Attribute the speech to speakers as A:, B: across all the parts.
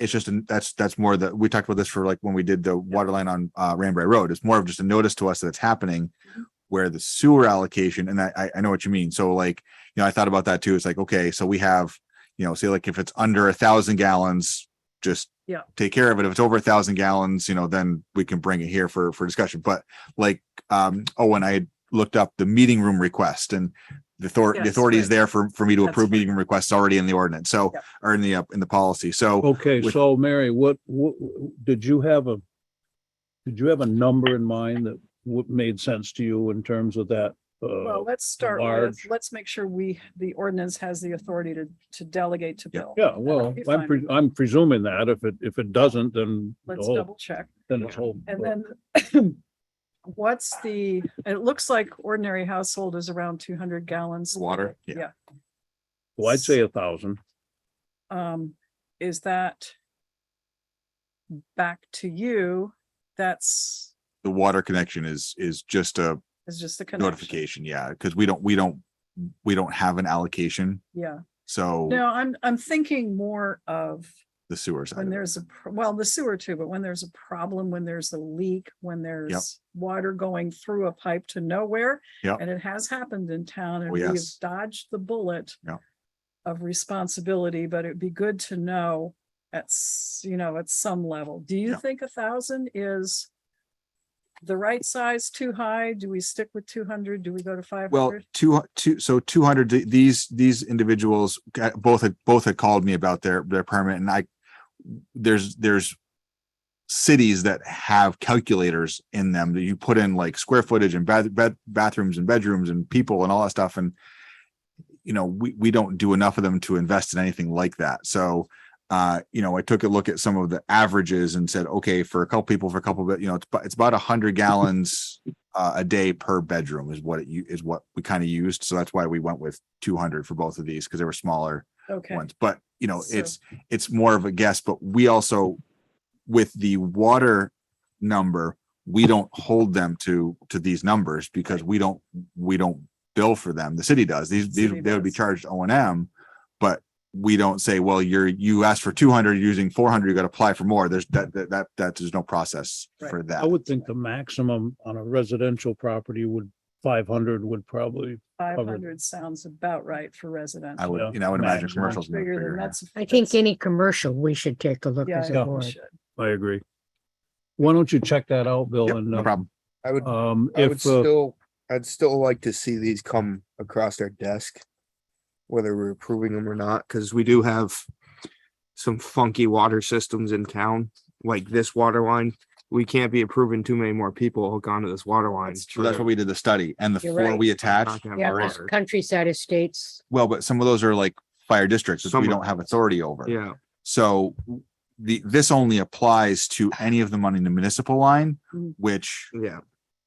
A: it's just, an- that's, that's more that, we talked about this for like when we did the water line on, uh, Ranbury Road. It's more of just a notice to us that it's happening
B: Mm-hmm.
A: where the sewer allocation, and I, I, I know what you mean. So like, you know, I thought about that too. It's like, okay, so we have, you know, say like if it's under a thousand gallons, just
B: Yeah.
A: take care of it. If it's over a thousand gallons, you know, then we can bring it here for, for discussion. But like, um, oh, and I had looked up the meeting room request and the authority, the
B: Yes,
A: authority is
B: right.
A: there for, for me to
B: That's
A: approve
B: right.
A: meeting room requests already in the ordinance. So,
B: Yep.
A: or in the, uh, in the policy. So
C: Okay,
A: with-
C: so Mary, what, what, did you have a, did you have a number in mind that would made sense to you in terms of that?
B: Well,
C: Uh,
B: let's start with,
C: large-
B: let's make sure we, the ordinance has the authority to, to delegate to
A: Yeah.
B: Bill.
C: yeah, well,
B: That'd be
C: I'm,
B: fine.
C: pre- I'm presuming that if it, if it doesn't, then the
B: Let's
C: whole-
B: double check.
C: then it's whole.
B: And then what's the, it looks like ordinary household is around two hundred gallons.
A: Water, yeah.
B: Yeah.
C: Well, I'd say a thousand.
B: Um, is that back to you? That's,
A: the water connection is, is just a
B: is just the connection.
A: notification. Yeah. Cause we don't, we don't, we don't have an allocation.
B: Yeah.
A: So
B: No, I'm, I'm thinking more of
A: the sewer side.
B: when
A: of it.
B: there's a, pro- well, the sewer too, but when there's a problem, when there's a leak, when there's water going through a pipe to nowhere.
A: Yep.
B: And it has happened in town and
A: Oh,
B: we have
A: yes.
B: dodged the bullet.
A: Yep.
B: Of responsibility, but it'd be good to know at, s- you know, at some level. Do you
A: Yep.
B: think a thousand is? The right size too high? Do we stick with two hundred? Do we go to five
A: Well,
B: hundred?
A: two, hu- two, so two hundred, these, these individuals, uh, both had, both had called me about their, their permit and I, there's, there's cities that have calculators in them that you put in like square footage and bath, bath, bathrooms and bedrooms and people and all that stuff. And, you know, we, we don't do enough of them to invest in anything like that. So, uh, you know, I took a look at some of the averages and said, okay, for a couple people, for a couple of, you know, it's, about- it's about a hundred gallons uh, a day per bedroom is what it u- is what we kind of used. So that's why we went with 200 for both of these because they were smaller
B: Okay,
A: ones. But you know,
B: So-
A: it's it's more of a guess. But we also, with the water number, we don't hold them to to these numbers because we don't we don't bill for them. The city does. These these
B: City
A: they would be
B: does.
A: charged O and M, but we don't say, well, you're you asked for 200 you're using 400, you got to apply for more. There's that that that, that there's no process
B: Right.
A: for that.
C: I would think the maximum on a residential property would, five hundred would probably,
B: five hundred sounds about right for residential.
A: I
C: Yeah.
A: would, you know, I would imagine
C: Maximum.
A: commercials. much
B: Bigger
A: bigger,
B: than
A: yeah.
B: that's.
D: I think any commercial, we should take a look
B: Yeah,
D: as
B: I
D: a
B: think we
D: board.
B: should.
C: I agree. Why don't you check that out, Bill?
A: Yep,
C: And,
A: no
C: uh,
A: problem.
E: I would,
C: um,
E: I would
C: if, uh,
E: still, I'd still like to see these come across our desk. Whether we're approving them or not, because we do have some funky water systems in town, like this water line. We can't be approving too many more people hook onto this water line.
B: That's
A: So that's what we did the study and the
D: You're
A: four
D: right.
A: we
E: We're
A: attached.
E: not gonna
D: Yeah,
E: have
D: there's
E: water.
D: countryside estates.
A: Well, but some of those are like fire districts that
E: Some
A: we
E: of
A: don't have authority over.
E: Yeah,
A: So the, this only applies to any of them on the municipal line,
B: Mm.
A: which
E: yeah,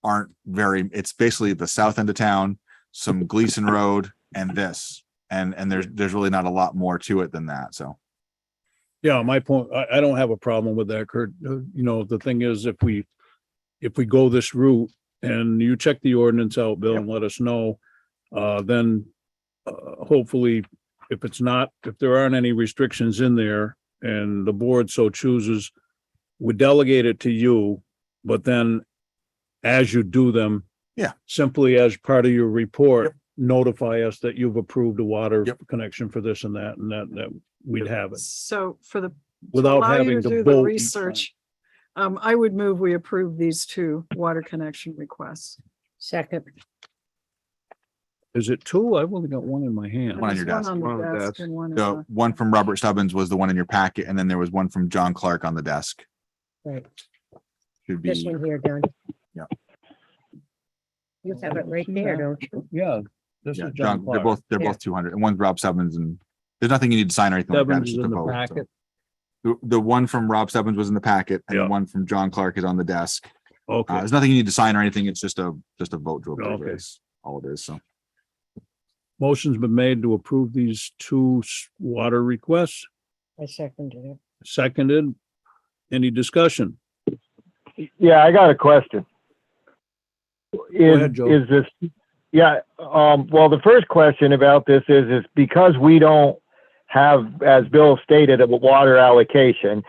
A: aren't very, it's basically the south end of town, some Gleason Road and this. And, and there's, there's really not a lot more to it than that. So.
C: Yeah, my point, I, I don't have a problem with that, Kurt. Uh, You know, the thing is, if we, if we go this route and you check the ordinance out, Bill, and let us know, uh, then uh, hopefully, if it's not, if there aren't any restrictions in there and the board so chooses, we delegate it to you, but then as you do them.
A: Yeah.
C: Simply as part of your
A: Yep.
C: report, notify us that you've approved a water
A: Yep.
C: connection for this and that, and that, that we'd have it.
B: So for the,
C: Without
B: allow you to
C: having to
B: do the
C: vote.
B: research, um, I would move we approve these two water connection requests.
D: Second,
C: Is it two? I've only got one in my hand.
A: One on
B: There's
A: your desk,
B: the
E: one on the
B: desk
E: desk.
B: and one in
D: Uh-huh.
A: The
B: the-
A: one from Robert Stubbins was the one in your packet and then there was one from John Clark on the desk.
D: right,
A: Should
D: this
A: be,
D: one here, Don.
A: Yeah.
D: You have it right there, don't you?
C: Yeah, this
A: yeah,
C: is
A: John,
C: John
A: they're
C: Clark.
A: both, they're
D: Yeah.
A: both two hundred and one's Rob Stubbins and there's nothing you need to sign or anything like that.
C: Devon's
A: It's
C: is
A: just a
C: in the
A: vote, so.
C: packet.
A: The, the one from Rob Stebbins was in the packet and the
C: Yeah.
A: one from John Clark is on the desk. Uh,
C: Okay,
A: there's nothing you need to sign or anything. It's just a, just a vote to approve
C: Okay.
A: it is all it is. So
C: motion's been made to approve these two s- water requests,
D: I seconded it.
C: seconded. Any discussion?
F: Yeah, I got a question. Is,
C: ahead, Joe.
F: is this, yeah, um, well, the first question about this is, is because we don't have, as Bill stated, a water allocation.